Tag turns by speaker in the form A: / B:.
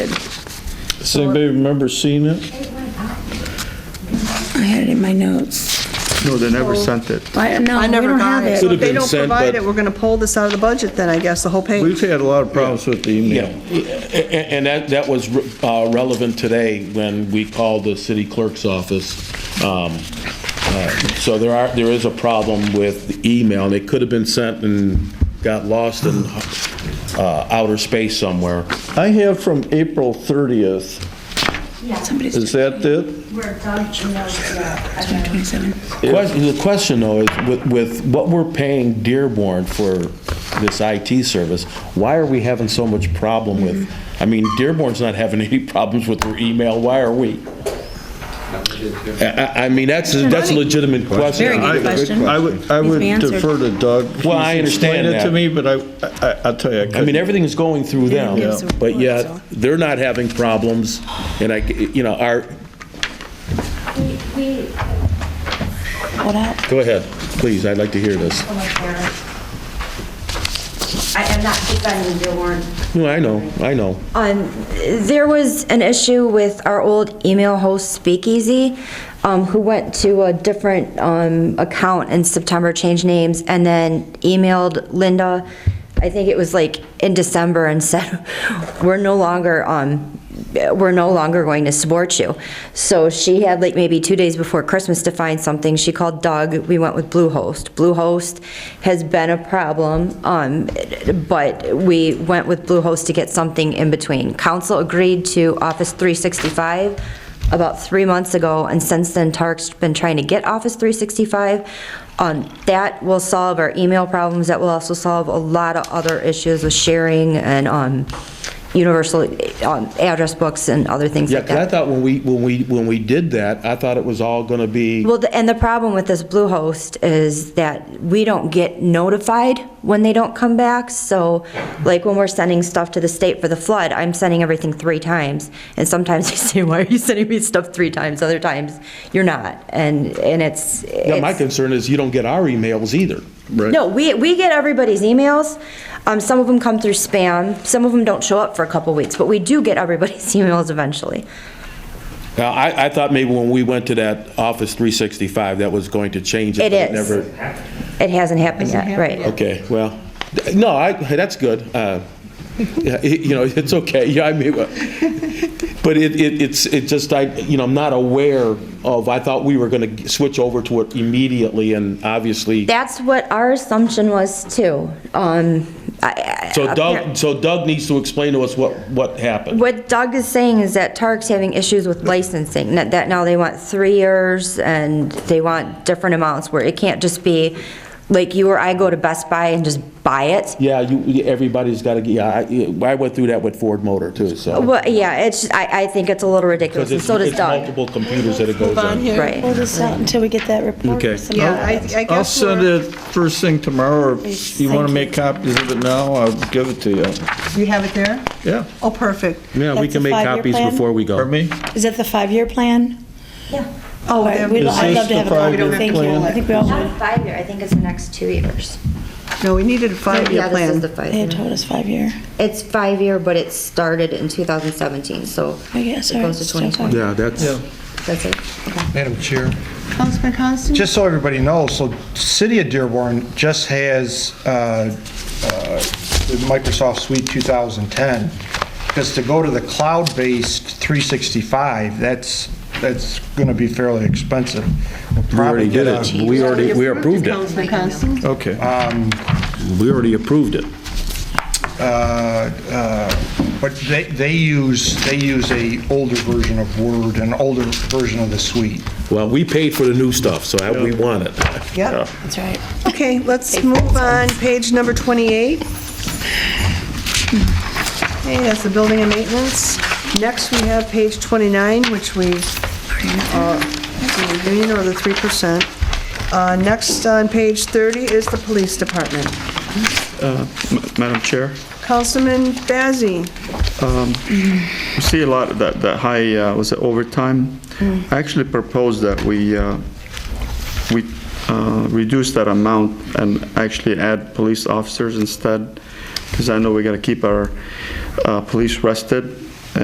A: Does anybody remember seeing it?
B: I had it in my notes.
C: No, they never sent it.
B: I, no,
D: I
B: we
D: never
B: don't
D: got
B: have
D: it.
B: it.
D: So
A: Could've
D: if they
A: been
D: don't
A: sent,
D: provide
A: but-
D: it, we're going to pull this out of the budget then, I guess, the whole
C: We've
D: page.
C: had a lot of problems with the
A: Yeah,
C: email.
A: A- and that, that was uh, relevant today when we called the city clerk's office. Um, uh, So there are, there is a problem with the email, and it could have been sent and got lost in uh, outer space somewhere.
C: I have from April 30th.
B: Somebody's
C: Is that it?
E: Where Doug Janelle's, uh, I mean,
B: 27.
A: Ques- The question, though, is with, with what we're paying Dearborn for this IT service, why are we having so much problem with, I mean, Dearborn's not having any problems with their email, why are we? I, I- I mean, that's, that's a legitimate question.
B: Very good question.
C: I would, I would
B: Needs to be
C: defer to Doug.
A: Well, I understand
C: Explain it to
A: that.
C: me, but I, I- I'll tell you, I
A: I mean,
C: couldn't.
A: everything is going through
B: Yeah, it's
A: them,
B: a
A: but yet,
B: report,
A: they're not having problems, and I, you know, our,
E: we, we,
B: Hold out.
A: go ahead, please, I'd like to hear this.
E: oh my God. I am not defending your word.
A: No, I know, I know.
F: Um, there was an issue with our old email host Speakeasy, um, who went to a different, um, account in September, changed names, and then emailed Linda, I think it was like in December, and said, we're no longer, um, we're no longer going to support you. So she had like maybe two days before Christmas to find something. She called Doug. We went with Bluehost. Bluehost has been a problem, um, but we went with Bluehost to get something in between. Council agreed to Office 365 about three months ago, and since then Tark's been trying to get Office 365. Um, that will solve our email problems. That will also solve a lot of other issues with sharing and, um, universal um, address books and other things
A: Yeah,
F: like
A: 'cause I
F: that.
A: thought when we, when we, when we did that, I thought it was all gonna be.
F: Well, the- and the problem with this Bluehost is that we don't get notified when they don't come back. So like when we're sending stuff to the state for the flood, I'm sending everything three times. And sometimes they say, why are you sending me stuff three times? Other times, you're not. And, and it's.
A: Yeah, my
F: it's-
A: concern is you don't get our emails either.
C: Right.
F: No, we, we get everybody's emails. Um, Some of them come through spam. Some of them don't show up for a couple weeks, but we do get everybody's emails eventually.
A: Now, I, I thought maybe when we went to that Office 365, that was going to change it.
F: It
A: but
F: is.
A: Never,
F: It hasn't happened yet, right?
A: okay, well, no, I, hey, that's good. Uh, yeah, it- You know, it's okay, yeah, I mean, uh, but it, it, it's, it just, I, you know, I'm not aware of, I thought we were gonna switch over to it immediately, and obviously.
F: That's what our assumption was too. Um, I- I-
A: So Doug, so Doug needs to explain to us what, what happened.
F: What Doug is saying is that Tark's having issues with licensing, that that now they want three years and they want different amounts where it can't just be like you or I go to Best Buy and just buy it.
A: Yeah, you, everybody's gotta, get- yeah, I, I went through that with Ford Motor too, so.
F: Well, yeah, it's, I, I think it's a little ridiculous and
A: Because
F: so does
A: it's
F: Doug.
A: multiple computers that it goes on.
F: Right.
G: Hold this out until we get that report.
A: Okay.
G: Some-
D: Yeah, I, I
C: I'll
D: guess
C: send
D: we're,
C: it first thing tomorrow, or if you want to make copies of it now, I'll give it to you.
D: you have it there?
C: Yeah,
D: Oh, perfect.
A: Yeah,
G: we That's can a make five-year copies plan? before
A: we go.
C: for me?
G: Is that the five-year plan?
D: Oh,
G: All right,
D: there-
G: we'd- I'd
C: this
G: love to
C: the
G: have a copy.
C: five-year
G: Thank you.
C: plan?
G: I think we all would.
F: five year, I think it's the next two years.
D: no, we needed a five-year
F: Yeah, this is the
D: plan.
F: five
G: They
F: year.
G: had told us five-year.
F: It's five year, but it started in 2017, so
G: I
F: it
G: guess, all right,
F: goes to
G: still five.
F: 2020.
A: Yeah, that's,
F: That's it.
H: Madam Chair,
D: Councilman Coniston?
H: just so everybody knows, so City of Dearborn just has uh, uh, the Microsoft Suite 2010, because to go to the cloud-based 365, that's, that's going to be fairly expensive. We'll
A: we
H: probably
A: already
H: get
A: did
H: a-
A: it. We already, we approved it.
D: Councilman Coniston?
C: Okay.
A: We already approved it.
H: uh, But they, they use, they use a older version of Word, an older version of the suite.
A: Well, we paid for the new stuff, so I- we want it.
D: Yep.
G: That's right.
D: Okay, let's move on, page number 28. Okay, that's the building and maintenance. Next, we have page 29, which we, uh, the union or the 3%. Uh, Next on page 30 is the police department.
I: Madam Chair,
D: Councilman Bazey,
I: we see a lot of that, that high, uh, was it overtime? I actually proposed that we, uh, we uh, reduce that amount and actually add police officers instead, because I know we got to keep our uh, police rested,